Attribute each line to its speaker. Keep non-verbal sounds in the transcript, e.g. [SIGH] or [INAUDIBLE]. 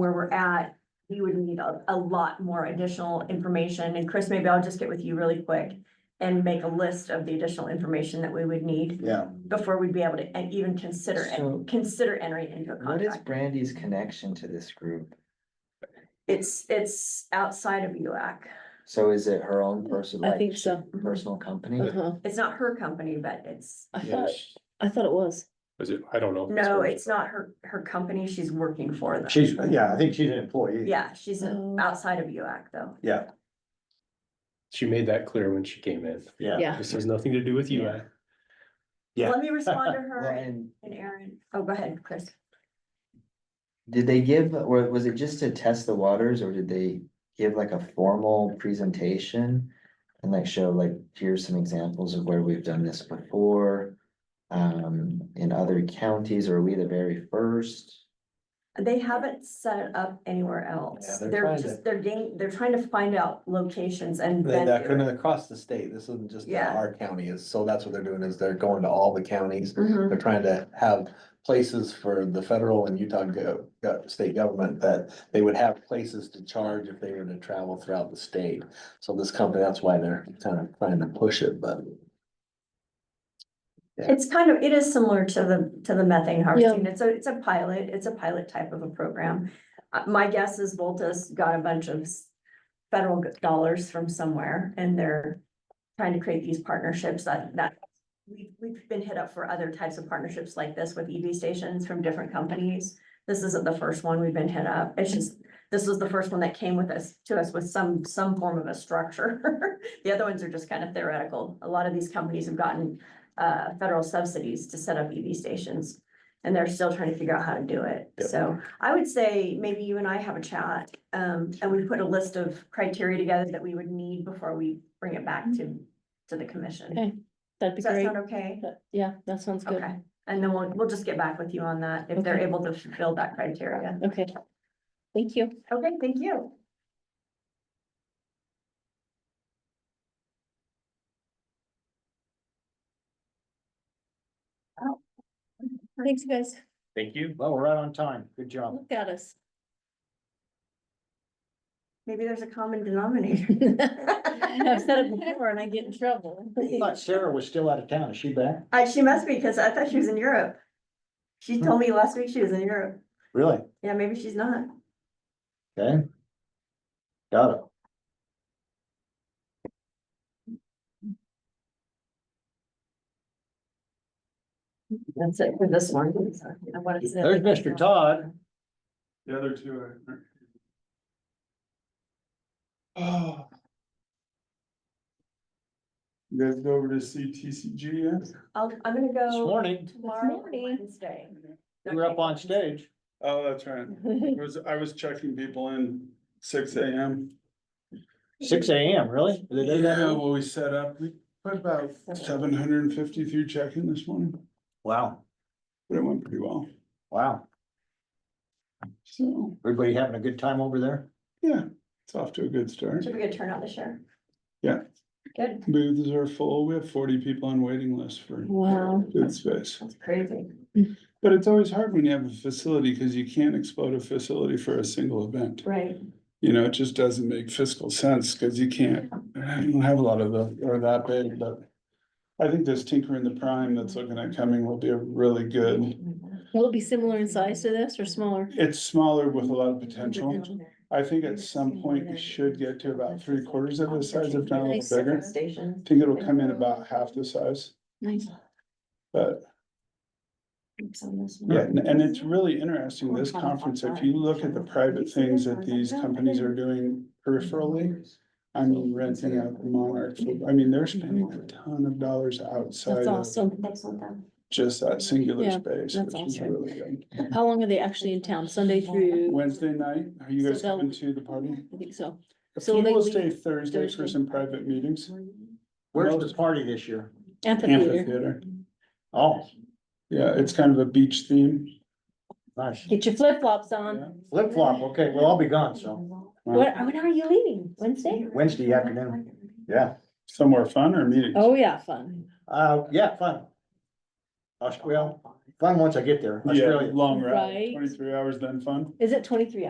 Speaker 1: where we're at, we would need a, a lot more additional information. And Chris, maybe I'll just get with you really quick and make a list of the additional information that we would need
Speaker 2: Yeah,
Speaker 1: before we'd be able to en- even consider, en-
Speaker 3: So-
Speaker 1: consider entering into a
Speaker 3: What is
Speaker 1: contract.
Speaker 3: Brandy's connection to this group?
Speaker 1: It's, it's outside of UAC.
Speaker 3: So is it her own personal,
Speaker 4: I
Speaker 3: like,
Speaker 4: think so.
Speaker 3: personal company?
Speaker 4: Uh-huh.
Speaker 1: It's not her company, but it's,
Speaker 4: I thought,
Speaker 5: Yes,
Speaker 4: I thought it was.
Speaker 5: is it, I don't know. if
Speaker 1: no,
Speaker 5: hers.
Speaker 1: it's not her, her company. She's working for them.
Speaker 2: she's, yeah, I think she's an employee.
Speaker 1: Yeah, she's
Speaker 4: Oh.
Speaker 1: outside of UAC though.
Speaker 2: Yeah,
Speaker 5: She made that clear when she came in.
Speaker 2: yeah,
Speaker 4: Yeah.
Speaker 5: This has nothing to do with you.
Speaker 3: Yeah.
Speaker 2: Yeah.
Speaker 3: [LAUGHS]
Speaker 1: Let me respond to
Speaker 3: Well,
Speaker 1: her
Speaker 3: and
Speaker 1: and Aaron. Oh, go ahead, Chris.
Speaker 3: did they give, or was it just to test the waters, or did they give like a formal presentation? And like show like, here's some examples of where we've done this before, um, in other counties, or are we the very first?
Speaker 1: They haven't set it up anywhere else.
Speaker 6: Yeah, they're
Speaker 1: They're
Speaker 6: trying
Speaker 1: just,
Speaker 6: to-
Speaker 1: they're getting, they're trying to find out locations and
Speaker 6: They-
Speaker 1: then.
Speaker 6: That
Speaker 1: do
Speaker 6: kind
Speaker 1: it.
Speaker 6: of across the state, this isn't just
Speaker 1: Yeah.
Speaker 6: our county is, so that's what they're doing is they're going to all the counties.
Speaker 1: Mhm.
Speaker 6: They're trying to have places for the federal and Utah go, go- state government that they would have places to charge if they were to travel throughout the state. So this company, that's why they're kind of trying to push it, but
Speaker 1: It's kind of, it is similar to the, to the methane harvesting. It's a, it's a pilot, it's a pilot type of a program. Uh, my guess is Voltus got a bunch of s- federal g- dollars from somewhere and they're trying to create these partnerships that, that we've, we've been hit up for other types of partnerships like this with EV stations from different companies. This isn't the first one we've been hit up. It's just, this was the first one that came with us, to us with some, some form of a structure. [LAUGHS] The other ones are just kind of theoretical. A lot of these companies have gotten uh, federal subsidies to set up EV stations. And they're still trying to figure out how to do it.
Speaker 6: Yep.
Speaker 1: So I would say maybe you and I have a chat, um, and we put a list of criteria together that we would need before we bring it back to, to the commission.
Speaker 4: Mm-hmm. Okay, That'd be
Speaker 1: Does that
Speaker 4: great.
Speaker 1: sound okay?
Speaker 4: That- Yeah, that sounds good.
Speaker 1: Okay, and then we'll, we'll just get back with you on that if they're
Speaker 4: Okay.
Speaker 1: able to fulfill that criteria.
Speaker 4: Okay. Thank you.
Speaker 1: Okay, thank you.
Speaker 4: Thanks, guys.
Speaker 5: Thank you.
Speaker 2: well, we're right on time, good job.
Speaker 4: Look at us.
Speaker 1: Maybe there's a common denominator.
Speaker 4: [LAUGHS] I've said it before and I get in trouble. [LAUGHS]
Speaker 1: [LAUGHS]
Speaker 2: I thought Sarah was still out of town, is she back?
Speaker 1: Uh, she must be, because I thought she was in Europe. She told me last week she was in Europe.
Speaker 2: Really?
Speaker 1: Yeah, maybe she's not.
Speaker 2: Okay. Got it.
Speaker 1: That's it for this one. I wanted to-
Speaker 2: There's Mr. Todd.
Speaker 5: The other two are. Oh. You guys go over to CTCG yet?
Speaker 1: I'll, I'm gonna
Speaker 2: This
Speaker 1: go
Speaker 2: morning,
Speaker 1: tomorrow,
Speaker 4: morning.
Speaker 1: Wednesday.
Speaker 2: we were up on stage.
Speaker 5: Oh, that's right. I was, I was checking people in six AM.
Speaker 2: Six AM, really? Did they do that?
Speaker 5: Yeah, well, we set up, we put about seven hundred and fifty through check-in this morning,
Speaker 2: Wow,
Speaker 5: but it went pretty well,
Speaker 2: wow.
Speaker 5: so,
Speaker 2: Everybody having a good time over there?
Speaker 5: yeah, it's off to a good start.
Speaker 1: Should be a good turnout this year.
Speaker 5: Yeah.
Speaker 1: Good,
Speaker 5: Booths are full, we have forty people on waiting list for
Speaker 4: Wow.
Speaker 5: good space,
Speaker 1: that's crazy.
Speaker 5: but it's always hard when you have a facility, cause you can't explode a facility for a single event.
Speaker 1: Right.
Speaker 5: You know, it just doesn't make fiscal sense, cause you can't, you don't have a lot of the, or that big, but. I think this Tinker in the Prime that's looking at coming will be a really good,
Speaker 4: Will it be similar in size to this or smaller?
Speaker 5: it's smaller with a lot of potential. I think at some point we should get to about three quarters of the size, if not a little bigger.
Speaker 1: Stations.
Speaker 5: I think it'll come in about half the size,
Speaker 4: Nice.
Speaker 5: but yeah, and and it's really interesting, this conference, if you look at the private things that these companies are doing peripherally. I mean, renting out the Monarch, I mean, they're spending a ton of dollars outside
Speaker 4: That's
Speaker 5: of
Speaker 4: awesome.
Speaker 5: just that singular
Speaker 4: Yeah,
Speaker 5: space,
Speaker 4: that's
Speaker 5: which is
Speaker 4: awesome.
Speaker 5: really good.
Speaker 4: How long are they actually in town? Sunday through?
Speaker 5: Wednesday night, are you
Speaker 4: So
Speaker 5: guys
Speaker 4: they'll-
Speaker 5: coming to the party?
Speaker 4: I think so.
Speaker 5: A
Speaker 4: So
Speaker 5: few
Speaker 4: they
Speaker 5: will
Speaker 4: leave
Speaker 5: stay Thursday for
Speaker 4: Thursday.
Speaker 5: some private meetings.
Speaker 2: Where's the party this year?
Speaker 4: Amphitheater.
Speaker 5: Amphitheater.
Speaker 2: Oh,
Speaker 5: Yeah, it's kind of a beach theme.
Speaker 2: nice.
Speaker 4: Get your flip flops on.
Speaker 2: Flip flop, okay, well, I'll be gone, so,
Speaker 4: Um, What, when are you leaving? Wednesday?
Speaker 2: Wednesday afternoon. yeah,
Speaker 5: Somewhere fun or meeting?
Speaker 4: Oh, yeah, fun.
Speaker 2: uh, yeah, fun. Aus- Well, fun once I get there,
Speaker 5: Yeah,
Speaker 2: Australia.
Speaker 5: long ride,
Speaker 4: Right.
Speaker 5: twenty-three hours then fun.
Speaker 4: Is it twenty-three hours?